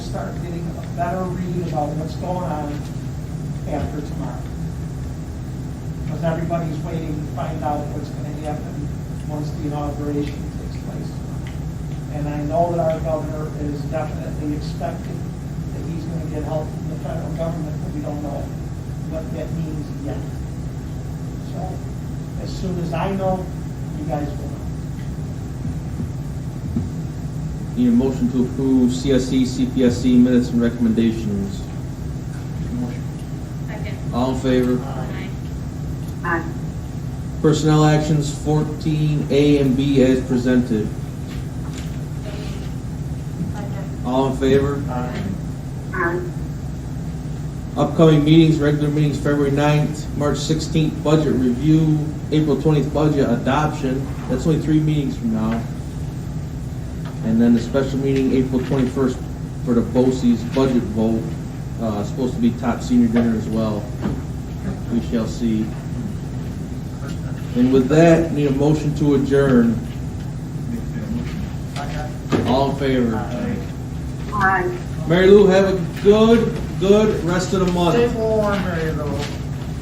start getting a better read about what's going on after tomorrow. Because everybody's waiting to find out what's gonna happen once the inauguration takes place. And I know that our governor is definitely expecting that he's gonna get help from the federal government, but we don't know what that means yet. So, as soon as I know, you guys will know. Need a motion to approve E, CSE, CPSC minutes and recommendations. Second. All in favor? Aye. Aye. Personnel actions fourteen A and B as presented. All in favor? Aye. Aye. Upcoming meetings, regular meetings February 9th, March sixteenth, budget review, April twentieth, budget adoption. That's only three meetings from now. And then the special meeting, April twenty-first, for the BOCES budget vote, uh, supposed to be top senior dinner as well. We shall see. And with that, need a motion to adjourn. All in favor? Aye. Mary Lou, have a good, good rest of the month. Stay warm, Mary Lou.